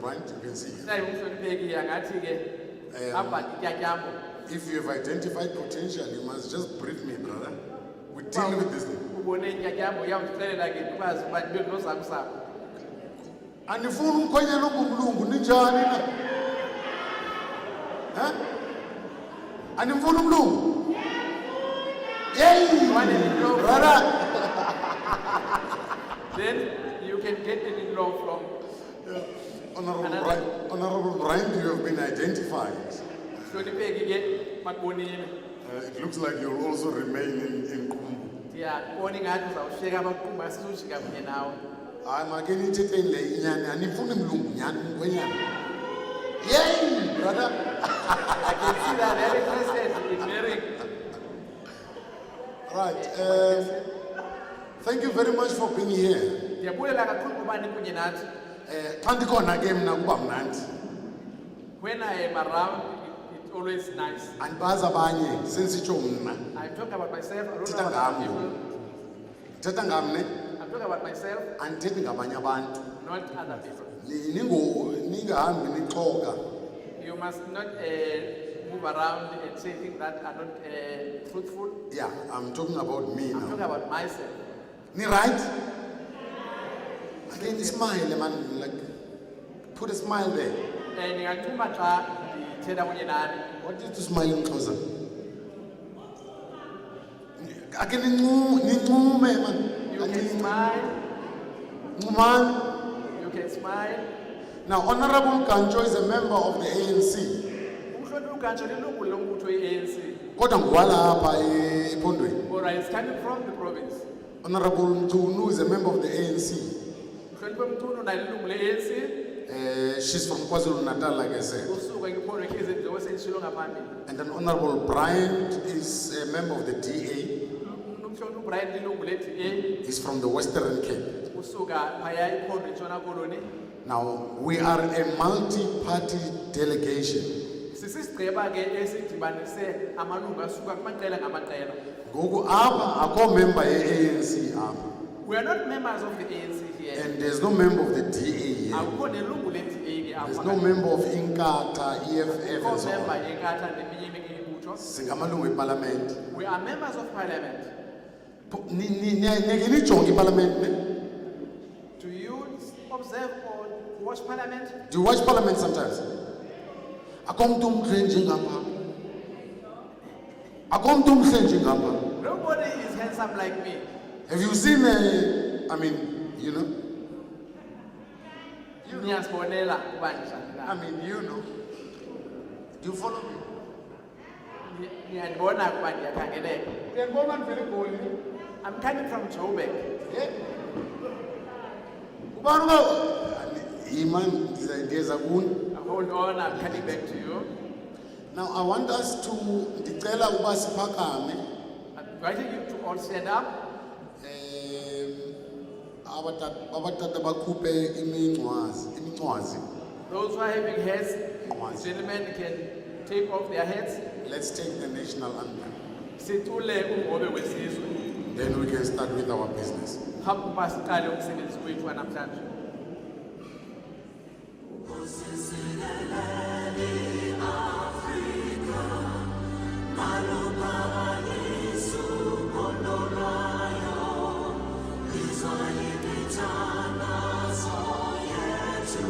branch, you can see here. Ndayibekile ngathi ke Eh. apha ityatyambo If you have identified potential, you must just brief me, brother. We Uba deal with this. thing. ubone ityatyambo uyawundixelela ke ndikwazi uba ndibe ndinosamsam andifuni umkhwenyana ongumlungu ninjani na Eh? andimfuni umlungu One is wrong. yeybrother then you can get it in law from honorable Another- Bri- Honorable Bryant, you have been identified hlonipheki ke bakubonile Uh, it looks like you'll also remain in, in Kumbu. ndiyakubona ingathi uzawushiyeka abaqumba sizushi kamnye nawe hayi make nithethe le inyani andifuni mlungu nyani umkhwenyana yeyi brother i can see that very interested in marrying right um, thank you very much for being here ndiyabulela kakhulu ngoba nikunye nathi Eh, xa ndikhona ke mna kuba mnandi when i am around it- it's always nice andibazi abanye sendisitsho mna i talk about myself i don't know Thetha about other ngam. people ndithetha ngamne i'm talking about myself andithethi ngabanye abantu not other people Ni- ningo- ningahambi nixoka You must not uh, move around and say things that are not uh, truthful. yeah i'm talking about me I'm talking now about myself. nirayithi ake ndismayile man like put a smile there And ngingathuma xa ndithetha kunye uh, nani what is to smile in xhosa ake nincu- nincume man you Ake can smile nincumane you can smile Now, Honorable Kancho is a member of the ANC. umhloniphi ukantsho lilungu lombutho i-anc kodwa ngowalapha e- ephondweni or is coming from the province honorable mtunu is a member of the anc mhloniphi emthunu naye lilungu le-anc uh, she's from kwazulu natal like i said usuka ngiphondo khezinjengoba sendishilo ngaphambili and then honorable bryant is a member of the da umhloniphi ubrian lilungu le-da he's from the western cape usuka phaya iphondo intshona koloni now we are a multi-party delegation sisisigqiba ke esidibanise amalungu asuka kumaqela ngamaqela ngoku apha akho member ye-anc apha we are not members of the anc here and there's no member of the da here akukho nelungu le-da ke there's no member of inkatha eff and so member on yenkatha neminye eminye imibutho singamalungu epalamente we are members of parliament Po- ni- ni- ni- nike nijonge ipalamente ne do you observe or watch parliament do you watch parliament sometimes akho mntu umhle njengapha akho mntu umhle njengapha nobody is handsome like me have you seen uh, i mean you know you know Um, niyazibonela uba njani i na mean you know do you follow me Ni- niyandibona ukuba ndiyakhangeleka uyandibona ndivele egoli i'm coming from joburg ye Eh? ubani uba yima ndiza- ndiyeza kuni hold on i'm coming back to you now i want us to ndicela uba siphakame i'm inviting you to all stand up Em, abata- abatata bakhuphe imincwazi imincwazi Those who are having heads, Once. gentlemen can take off their heads. let's take the national anthem Sithule umhobe wesizwe. then we can start with our business Hamba masiqale umsebenzi wethu namhlanje. Izo imithandazo yethu